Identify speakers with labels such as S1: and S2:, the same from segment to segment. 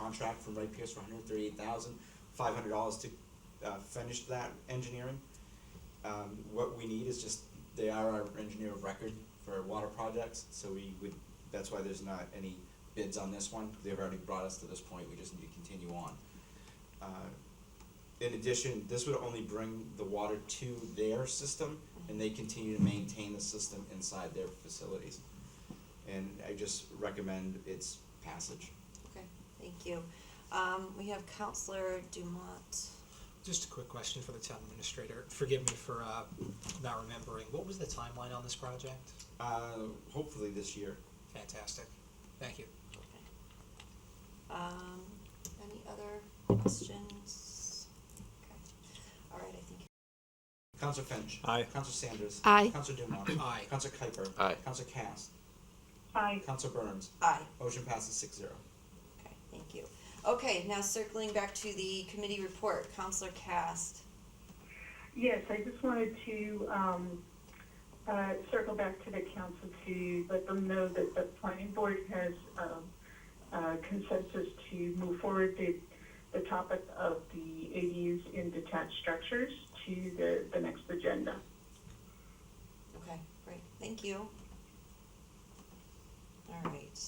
S1: contract from Wright Pierce for hundred thirty-eight thousand, five hundred dollars to, uh, finish that engineering. Um, what we need is just, they are our engineer of record for water projects, so we would, that's why there's not any bids on this one, they've already brought us to this point, we just need to continue on. Uh, in addition, this would only bring the water to their system, and they continue to maintain the system inside their facilities. And I just recommend its passage.
S2: Okay, thank you. Um, we have Counselor Dumont.
S3: Just a quick question for the town administrator. Forgive me for uh, not remembering. What was the timeline on this project?
S1: Uh, hopefully this year.
S3: Fantastic. Thank you.
S2: Um, any other questions? Okay, all right, I think
S1: Counselor Finch.
S4: Aye.
S1: Counselor Sanders.
S5: Aye.
S1: Counselor Dumont.
S3: Aye.
S1: Counselor Kuiper.
S4: Aye.
S1: Counselor Cass.
S6: Aye.
S1: Counselor Burns.
S2: Aye,
S1: Motion passes six zero.
S2: okay, thank you. Okay, now circling back to the committee report, Counselor Cast.
S6: Yes, I just wanted to um, uh, circle back to the council to let them know that the planning board has um, uh, consensus to move forward the, the topic of the ADUs in detached structures to the, the next agenda.
S2: Okay, great, thank you. All right.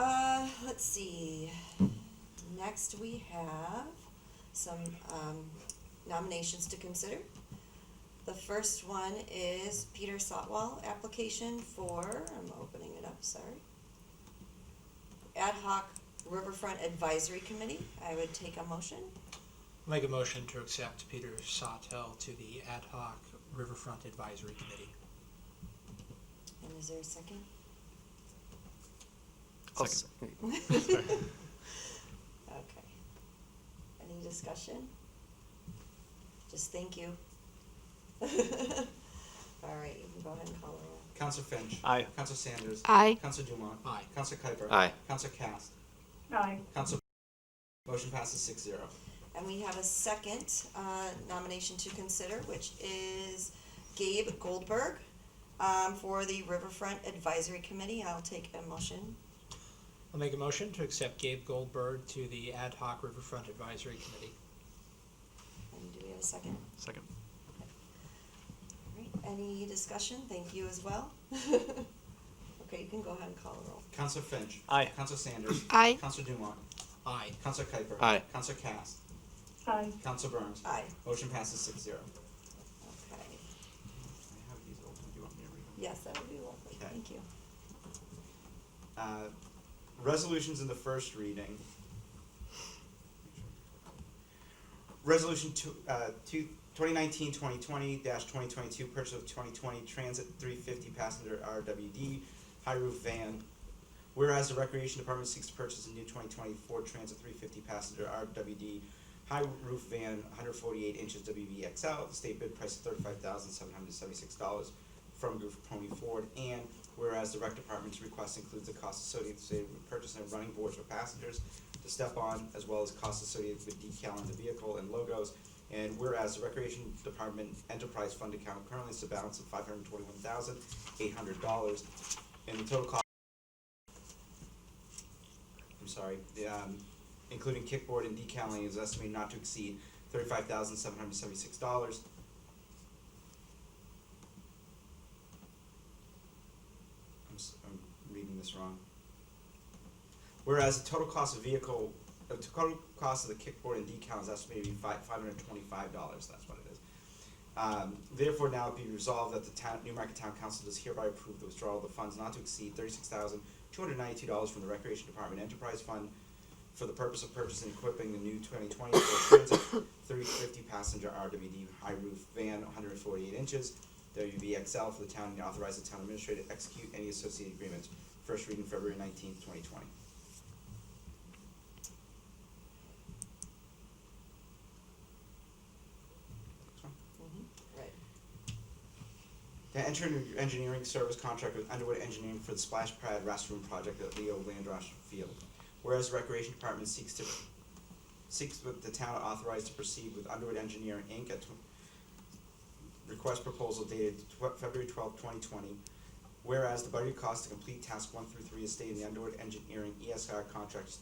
S2: Uh, let's see. Next, we have some, um, nominations to consider. The first one is Peter Sotwell application for, I'm opening it up, sorry. Ad hoc Riverfront Advisory Committee, I would take a motion.
S3: Make a motion to accept Peter Sawtell to the Ad hoc Riverfront Advisory Committee.
S2: And is there a second?
S4: I'll
S2: Okay. Any discussion? Just thank you. All right, you can go ahead and call the roll.
S1: Counselor Finch.
S4: Aye.
S1: Counselor Sanders.
S5: Aye.
S1: Counselor Dumont.
S3: Aye.
S1: Counselor Kuiper.
S4: Aye.
S1: Counselor Cass.
S6: Aye.
S1: Counselor. Motion passes six zero.
S2: And we have a second uh, nomination to consider, which is Gabe Goldberg um, for the Riverfront Advisory Committee. I'll take a motion.
S3: I'll make a motion to accept Gabe Goldberg to the Ad hoc Riverfront Advisory Committee.
S2: And do we have a second?
S4: Second.
S2: All right, any discussion? Thank you as well. Okay, you can go ahead and call the roll.
S1: Counselor Finch.
S4: Aye.
S1: Counselor Sanders.
S5: Aye.
S1: Counselor Dumont.
S3: Aye.
S1: Counselor Kuiper.
S4: Aye.
S1: Counselor Cass.
S6: Aye.
S1: Counselor Burns.
S2: Aye,
S1: Motion passes six zero. I
S2: okay.
S1: have these open. Do you want me to read them?
S2: Yes, that would be lovely.
S1: Okay.
S2: Thank you.
S1: Uh, resolutions in the first reading. Resolution two, uh, two, 2019-2020 2022 purchase of 2020 Transit 350 passenger RWD high roof van. Whereas the Recreation Department seeks to purchase a new 2020 Ford Transit 350 passenger RWD high roof van 148 inches WVXL, the state bid price of $35,776 from Group Pony Ford, and whereas the rec department's request includes the cost associated with purchasing of running boards for passengers to step on, as well as costs associated with decal on the vehicle and logos, and whereas the recreation department enterprise fund account currently is a balance of five hundred twenty-one thousand eight hundred dollars, and the total cost I'm sorry, the, um, including kickboard and decaling is estimated not to exceed thirty-five thousand seven hundred seventy-six dollars. I'm, s am reading this wrong. Whereas the total cost of vehicle, the total cost of the kickboard and decal is estimated to be five, five hundred twenty-five dollars, that's what it is. Um, therefore now be resolved that the town, Newmarket Town Council does hereby approve the withdrawal of the funds not to exceed thirty-six thousand two hundred ninety-two dollars from the Recreation Department Enterprise Fund for the purpose of purchasing and equipping the new twenty twenty Ford Transit three fifty passenger RWD high roof van, one hundred forty-eight inches, WVXL for the town and authorize the town administrator to execute any associated agreements. First reading February nineteenth, twenty twenty.
S2: Mm-hmm. Right.
S1: To enter an engineering service contract with Underwood Engineering for the splash pad restroom project at Leo Landross Field. Whereas the Recreation Department seeks to, seeks with the town authorized to proceed with Underwood Engineering Inc. at tw- request proposal dated tw- February twelfth, twenty twenty. Whereas the budget cost to complete task one through three is stated in the Underwood Engineering ESR E contract